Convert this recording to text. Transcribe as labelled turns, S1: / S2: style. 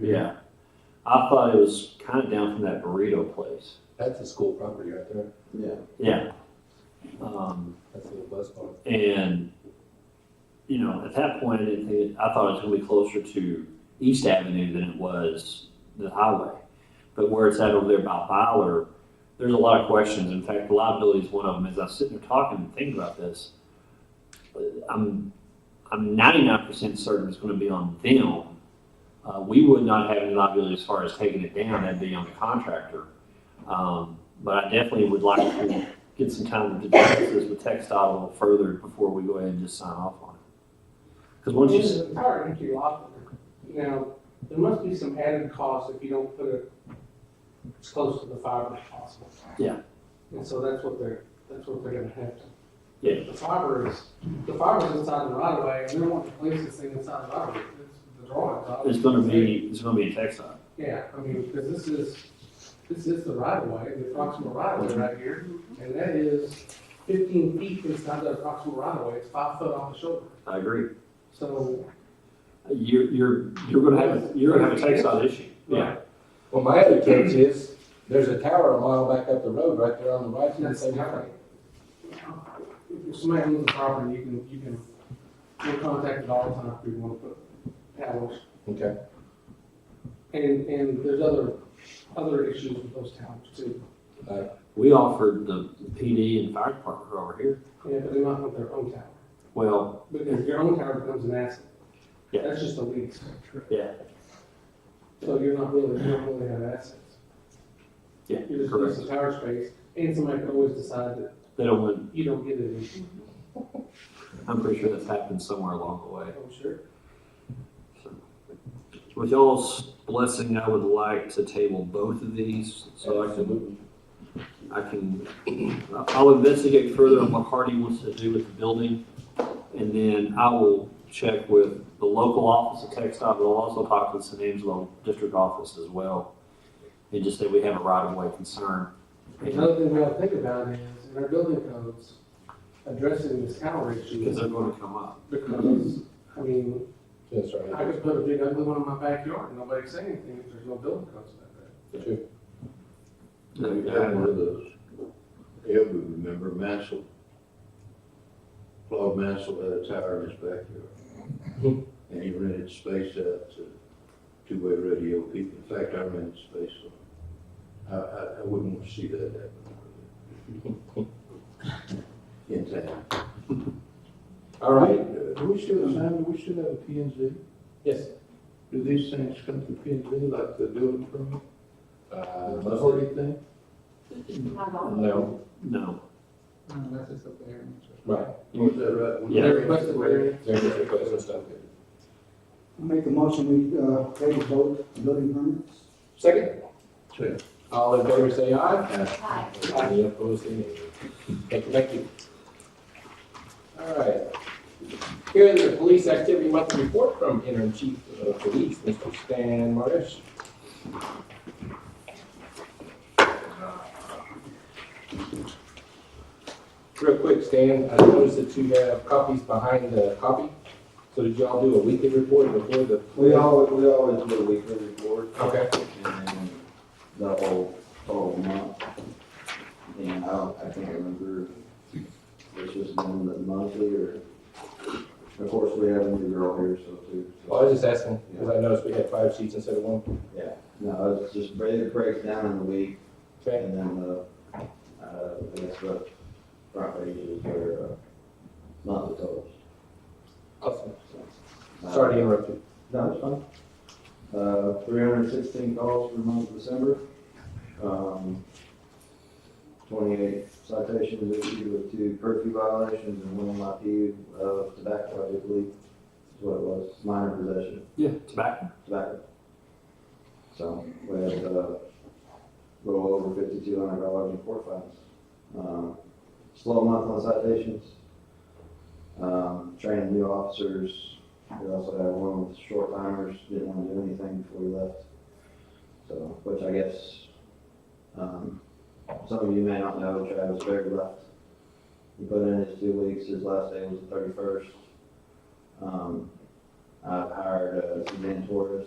S1: Yeah. I thought it was kind of down from that burrito place.
S2: That's a school property right there.
S3: Yeah.
S1: Yeah. Um,
S2: That's a little bus barn.
S1: and, you know, at that point, I didn't think, I thought it was going to be closer to East Avenue than it was the highway. But where it's at over there by Fowler, there's a lot of questions. In fact, liability is one of them. As I was sitting there talking and thinking about this, I'm, I'm 99% certain it's going to be on them. Uh, we would not have any liability as far as taking it down. That'd be on the contractor. Um, but I definitely would like to get some time to discuss this with Tech a little further before we go ahead and just sign off on it. Because once you, s-
S4: It's an entire entry lot. Now, there must be some added cost if you don't put it as close to the fiber as possible.
S1: Yeah.
S4: And so that's what they're, that's what they're gonna have to.
S1: Yeah.
S4: The fiber is, the fiber's inside the right of way, and they want to place this thing inside the right of way, it's the drawing.
S1: it's gonna be, it's gonna be a Tech stop.
S4: Yeah, I mean, because this is, this is the right of way, the approximate right of way right here, and that is fifteen feet inside the approximate right of way, it's five foot off the shoulder.
S1: I agree.
S4: So,
S1: You're, you're, you're gonna have, you're gonna have a Tech stop issue. Yeah.
S2: Well, my other catch is, there's a tower a mile back up the road right there on the right hand
S4: That's
S2: side.
S4: nothing. If somebody owns the property, you can, you can, you're contacted all the time if you want to put towers.
S2: Okay.
S4: And, and there's other, other issues with those towers too.
S1: We offered the PD and fire department over here.
S4: Yeah, but they might want their own tower,
S1: Well,
S4: because your own tower becomes an asset.
S1: Yeah.
S4: That's just a lease.
S1: Yeah.
S4: So you're not really, you don't really have assets.
S1: yeah,
S4: You're just
S1: correct.
S4: leasing tower space, and somebody could always decide that
S1: They don't want,
S4: you don't get it.
S1: I'm pretty sure that's happened somewhere along the way.
S4: I'm sure.
S1: With y'all's blessing, I would like to table both of these, so I can, I can, I'll investigate further on what Hardy wants to do with the building, and then I will check with the local office of Tech Stop, but I'll also talk to the San Angelo District Office as well, and just say we have a right-of-way concern.
S4: Another thing we ought to think about is, in our building codes, addressing this tower issue.
S1: Because they're gonna come up.
S4: Because, I mean,
S2: That's right.
S4: I could put a big ugly one in my backyard, and nobody'd say anything if there's no building codes about that.
S5: We had one of those, yeah, we remember Mansell. Claude Mansell had a tower in his backyard.
S2: Hmm.
S5: And he rented space out to two-way radio people. In fact, I rented space on. I, I, I wouldn't want to see that happen. In town.
S2: All right,
S5: Uh, Do we still, Simon, do we still have a P and Z?
S2: yes.
S5: Do these things come to P and Z like the building permit,
S2: Uh,
S5: the
S2: let's see.
S5: authority thing?
S2: No,
S1: No.
S4: Unless it's up there.
S2: right.
S5: Was that right? When
S1: Yeah.
S5: they're-
S4: Request a variance.
S2: There's a request for stuff.
S3: I make a motion, we, uh, table both building permits.
S2: Second,
S5: Say,
S2: all in favor say aye.
S6: Hi.
S2: Any opposed, say nay. Thank you, thank you. All right. Here is the police activity monthly report from interim chief of police, Mr. Stan Martish. Real quick, Stan, I noticed that you have copies behind the copy. So did y'all do a weekly report before the?
S7: We always, we always do a weekly report
S2: Okay,
S7: and then the whole, whole month. And I don't, I can't remember, if it's just been the monthly or, of course, we have a new girl here, so too. so-
S2: well, I was just asking, because I noticed we had five sheets instead of one.
S7: Yeah, no, it's just, break- it breaks down in the week
S2: Okay,
S7: and then the, uh, I guess what property is their, uh, monthly totals.
S2: awesome.
S7: Uh,
S2: Sorry to interrupt you.
S7: No, it's fine. Uh, three hundred sixteen calls for the month of December. Um, twenty-eight citations issued with two curfew violations and one MIP of tobacco, I do believe, is what it was, minor possession
S1: Yeah, tobacco.
S7: of tobacco. So, we had, uh, a little over fifty-two hundred dollars in court fines. Um, slow month on citations. Um, training new officers, we also had one with short timers, didn't want to do anything before we left. So, which I guess, um, some of you may not know, Travis Berry left. He put in his two weeks, his last day was the thirty-first. Um, I've hired, uh, Suzanne Torres